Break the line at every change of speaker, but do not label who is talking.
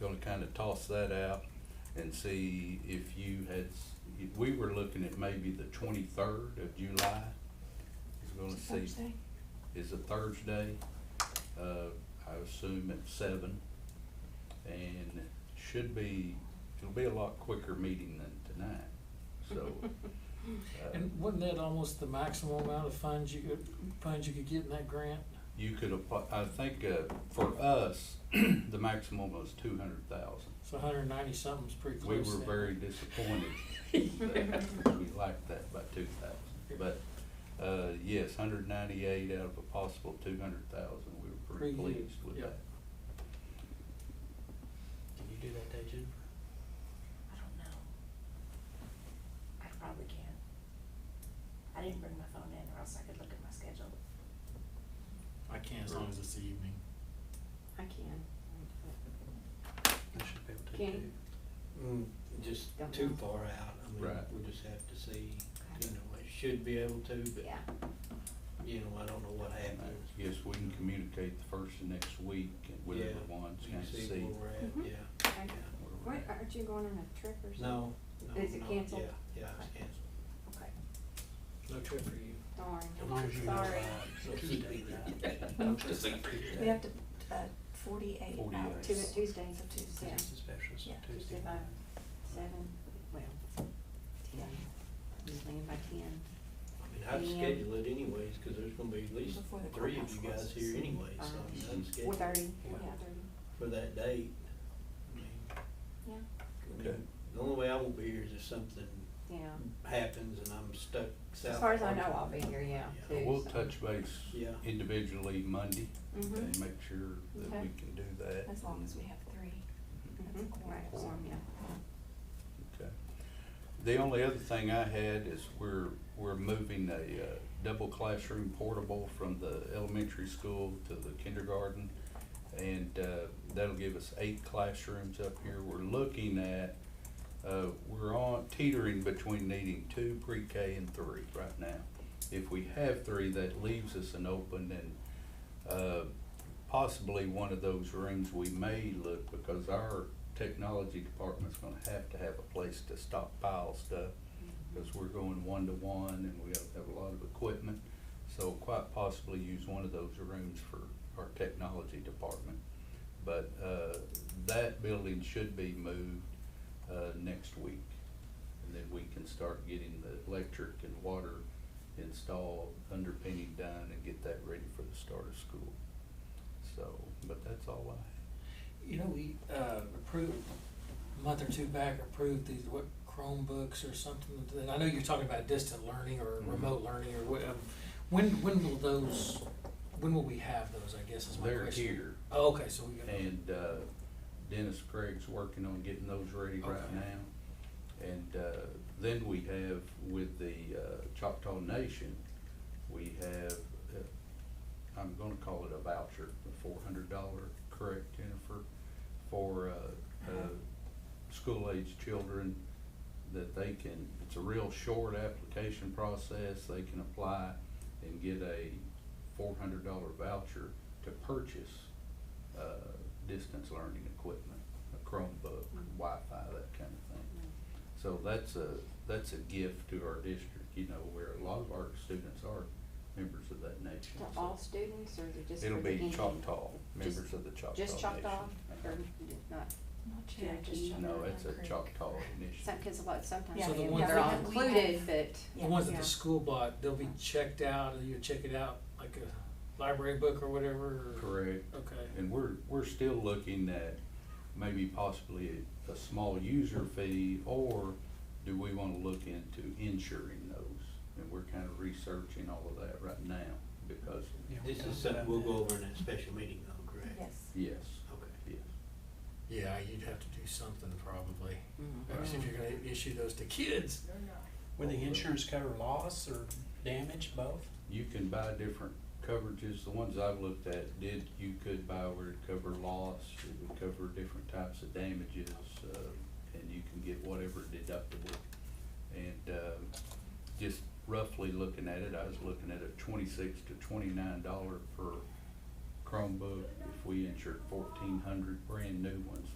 gonna kinda toss that out and see if you had, s- if we were looking at maybe the twenty-third of July. Is gonna see,
Thursday?
is a Thursday, uh, I assume at seven. And should be, it'll be a lot quicker meeting than tonight, so. uh,
And wasn't that almost the maximum amount of funds you could, funds you could get in that grant?
You could apply, I think, uh, for us, the maximum was two hundred thousand.
So hundred and ninety something's pretty
We
close
were
then.
very disappointed. that We lacked that by two thousand, but, uh, yes, hundred ninety-eight out of a possible two hundred thousand, we were pretty
Pretty huge,
pleased with
yeah.
that.
Can you do that day, Jennifer?
I don't know. I probably can. I didn't bring my phone in or else I could look at my schedule.
I can't,
As long as it's the evening.
I can.
I should be able to
Can
do.
you?
Mm, just
Don't
too
know.
far out, I mean,
Right.
we just have to see, you
Okay.
know, it should be able to, but,
Yeah,
you know, I don't know what happens.
Uh, Yes, we can communicate the first of next week with
Yeah,
everyone,
You
kind
can
of
see
see.
where we're at,
Mhm.
yeah,
Okay.
yeah.
where we're
Wait,
at.
aren't you going on a trip or something?
No, no,
Is it
no,
canceled?
Yeah, yeah, it's canceled.
Okay,
no trip for you.
darn.
As long as you know
Sorry.
by Tuesday night.
we have to, uh, forty-eight
48.
hours.
Two, Tuesdays,
So Tuesday.
yeah,
It's a special, so
Yeah,
Tuesday.
Tuesday by seven, well, ten, just leaving by ten.
I mean, I'd
And-
schedule it anyways, cause there's gonna be at least
Before the
three of
courthouse
you guys
closes.
here anyways, so
Um,
I mean, I'd schedule
Four thirty,
Yeah.
yeah, thirty,
for that date. I mean,
yeah,
I
Okay.
mean, the only way I won't be here is if something
yeah.
happens and I'm stuck south.
As far as I know,
Central.
I'll be here, yeah,
Yeah.
too.
We'll
so.
touch base
Yeah.
individually Monday
Mhm.
and make sure that
Okay.
we can do that.
Mm-hmm. As long as we have three. That's a
Mhm.
quorum.
Right, quorum, yeah.
Okay. The only other thing I had is we're, we're moving a uh, double classroom portable from the elementary school to the kindergarten. And uh, that'll give us eight classrooms up here. We're looking at, uh, we're on teetering between needing two pre-K and three right now. If we have three, that leaves us an open and uh, possibly one of those rooms we may look, because our technology department's gonna have to have a place to stockpile stuff, because we're going one-to-one and we have, have a lot of equipment. So quite possibly use one of those rooms for our technology department. But, uh, that building should be moved, uh, next week. And then we can start getting the electric and water installed, underpinning done, and get that ready for the start of school. So, but that's all I
You know, we, uh, approved, a month or two back, approved these, what, Chromebooks or something, and I know you're talking about distant learning or
Mhm.
remote learning or what, um, when, when will those, when will we have those, I guess is my
They're
question.
here.
Oh, okay, so we got.
And uh, Dennis Craig's working on getting those ready right
Okay.
now. And uh, then we have with the uh, Choctaw Nation, we have, uh, I'm gonna call it a voucher, a four hundred dollar, correct Jennifer? For uh,
Uh-huh.
uh, school-aged children that they can, it's a real short application process. They can apply and get a four hundred dollar voucher to purchase uh, distance learning equipment, a Chromebook,
Mm-hmm.
Wi-Fi, that kind of thing. So that's a, that's a gift to our district, you know, where a lot of our students are members of that nation.
To
so.
all students or is it just for
It'll
the
be
Indian?
Choctaw,
Just-
members of the Choctaw Nation.
Just Choctaw
Uh-huh.
or not?
Not
Yeah, just
Cherokee.
Choctaw.
No, it's a Choctaw
Some,
initiative.
cause a lot, sometimes
Yeah,
So the
they-
ones
they're all
that- we have-
included, but.
The
Yeah.
ones that
Yeah.
the school bought, they'll be checked out, and you check it out like a library book or whatever? or-
Correct.
Okay.
And we're, we're still looking at maybe possibly a small user fee, or do we wanna look into insuring those? And we're kinda researching all of that right now, because,
Yeah, we
This
talked
is something
about
we'll
that.
go over in that special meeting though, correct?
Yes.
yes,
Okay.
yes.
Yeah, you'd have to do something probably,
Mhm.
especially if you're gonna issue those to kids.
Would the insurance cover loss or damage, both?
You can buy different coverages, the ones I've looked at did, you could buy where it cover loss, it would cover different types of damages, uh, and you can get whatever deductible. And, uh, just roughly looking at it, I was looking at a twenty-six to twenty-nine dollar per Chromebook. If we insured fourteen hundred brand new ones,